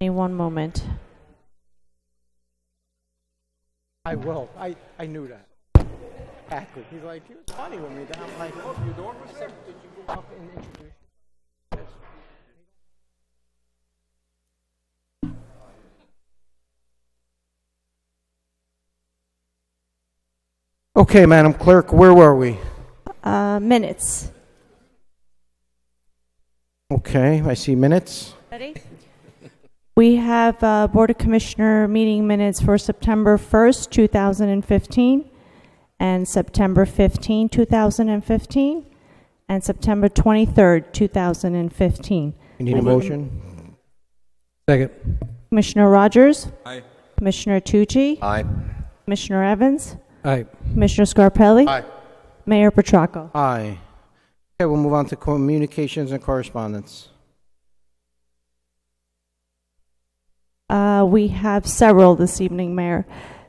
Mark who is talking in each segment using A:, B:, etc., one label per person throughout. A: me one moment.
B: I will. I, I knew that. Exactly. He's like, he was funny with me. Then I'm like, oh, you don't accept that you go up and introduce Okay, Madam Clerk, where were we?
A: Uh, minutes.
B: Okay, I see minutes.
A: Ready? We have uh, Board of Commissioner meeting minutes for September 1st, 2015, and September 15, 2015, and September 23rd, 2015.
B: You need a motion?
C: Second.
A: Commissioner Rogers?
D: Aye.
A: Commissioner Tucci?
D: Aye.
A: Commissioner Evans?
C: Aye.
A: Commissioner Scarpelli?
D: Aye.
A: Mayor Petracco?
B: Aye. Okay, we'll move on to communications and correspondence.
A: Uh, We have several this evening, Mayor.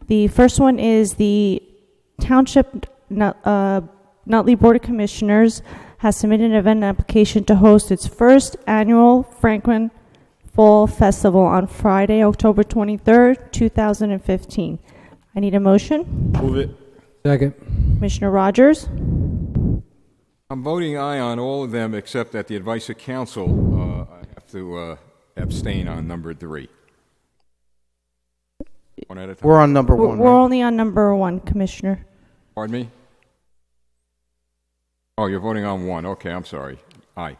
A: The first one is the Township Nut- uh, Nutley Board of Commissioners has submitted an event application to host its first annual Franklin Fall Festival on Friday, October 23rd, 2015. I need a motion.
D: Move it.
C: Second.
A: Commissioner Rogers?
D: I'm voting aye on all of them except at the advice of council. Uh, I have to uh, abstain on number three. One at a time.
B: We're on number
A: We're
B: one,
A: we're
B: right?
A: only on number one, Commissioner.
D: Pardon me? Oh, you're voting on one. Okay, I'm sorry. Aye.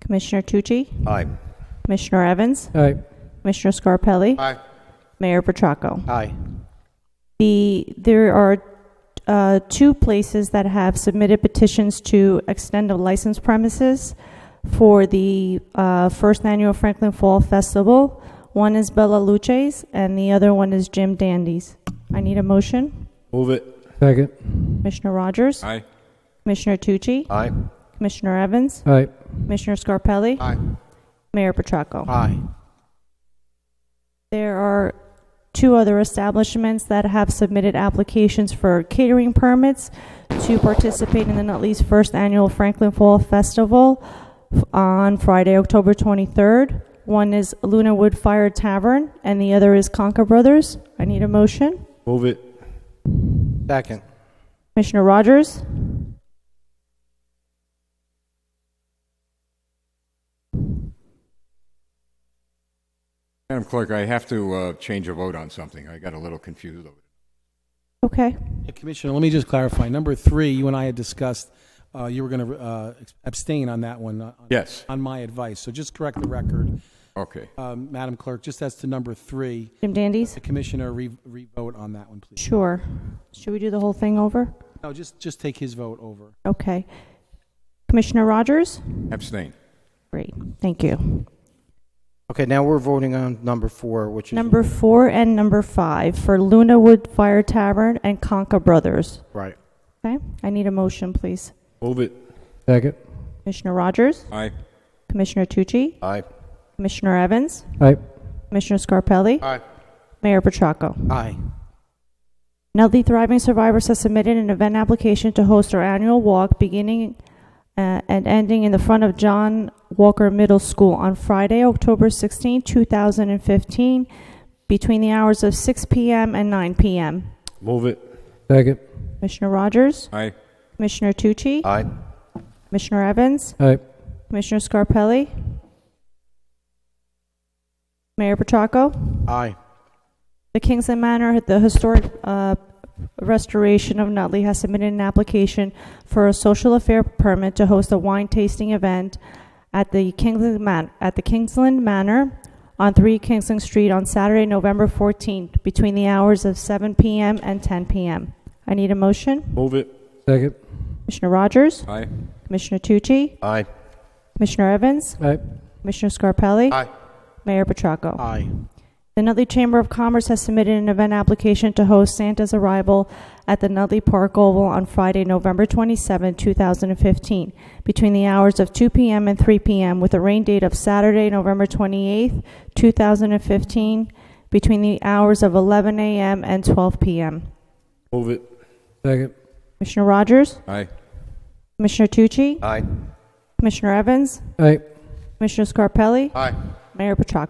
A: Commissioner Tucci?
D: Aye.
A: Commissioner Evans?
C: Aye.
A: Commissioner Scarpelli?
D: Aye.
A: Mayor Petracco?
B: Aye.
A: The, there are uh, two places that have submitted petitions to extend a license premises for the uh, first annual Franklin Fall Festival. One is Bella Luce's, and the other one is Jim Dandy's. I need a motion.
D: Move it.
C: Second.
A: Commissioner Rogers?
D: Aye.
A: Commissioner Tucci?
D: Aye.
A: Commissioner Evans?
C: Aye.
A: Commissioner Scarpelli?
D: Aye.
A: Mayor Petracco?
B: Aye.
A: There are two other establishments that have submitted applications for catering permits to participate in the Nutley's first annual Franklin Fall Festival f- on Friday, October 23rd. One is Luna Wood Fire Tavern, and the other is Conca Brothers. I need a motion.
D: Move it.
B: Second.
A: Commissioner Rogers?
D: Madam Clerk, I have to uh, change a vote on something. I got a little confused over it.
A: Okay.
E: Yeah, Commissioner, let me just clarify. Number three, you and I had discussed, uh, you were going to abstain on that one, uh,
D: Yes.
E: on my advice. So just correct the record,
D: Okay.
E: um, Madam Clerk, just as to number three,
A: Jim Dandy's?
E: the Commissioner re- re-vote on that one, please.
A: Sure. Should we do the whole thing over?
E: No, just, just take his vote over.
A: Okay. Commissioner Rogers?
D: Abstain.
A: Great. Thank you.
B: Okay, now we're voting on number four, which is.
A: Number four and number five for Luna Wood Fire Tavern and Conca Brothers.
B: Right.
A: Okay, I need a motion, please.
D: Move it.
C: Second.
A: Commissioner Rogers,
D: Aye.
A: Commissioner Tucci,
D: Aye.
A: Commissioner Evans,
C: Aye.
A: Commissioner Scarpelli,
D: Aye.
A: Mayor Petracco.
B: Aye.
A: Nutley Thriving Survivors has submitted an event application to host our annual walk beginning uh, and ending in the front of John Walker Middle School on Friday, October 16, 2015, between the hours of 6 p.m. and 9 p.m.
D: Move it.
C: Second.
A: Commissioner Rogers,
D: Aye.
A: Commissioner Tucci,
D: Aye.
A: Commissioner Evans,
C: Aye.
A: Commissioner Scarpelli, Mayor Petracco,
B: Aye.
A: the Kingsland Manor, the historic uh, restoration of Nutley has submitted an application for a social affair permit to host a wine tasting event at the Kingsland Man- at the Kingsland Manor on 3 Kingsland Street on Saturday, November 14th, between the hours of 7 p.m. and 10 p.m. I need a motion.
D: Move it.
C: Second.
A: Commissioner Rogers,
D: Aye.
A: Commissioner Tucci,
D: Aye.
A: Commissioner Evans,
C: Aye.
A: Commissioner Scarpelli?
D: Aye.
A: Mayor Petracco?
B: Aye.
A: The Nutley Chamber of Commerce has submitted an event application to host Santa's arrival at the Nutley Park Oval on Friday, November 27, 2015, between the hours of 2 p.m. and 3 p.m., with a rain date of Saturday, November 28, 2015, between the hours of 11 a.m. and 12 p.m.
D: Move it.
C: Second.
A: Commissioner Rogers?
D: Aye.
A: Commissioner Tucci?
D: Aye.
A: Commissioner Evans?
C: Aye.
A: Commissioner Scarpelli?
D: Aye.
A: Mayor Petracco?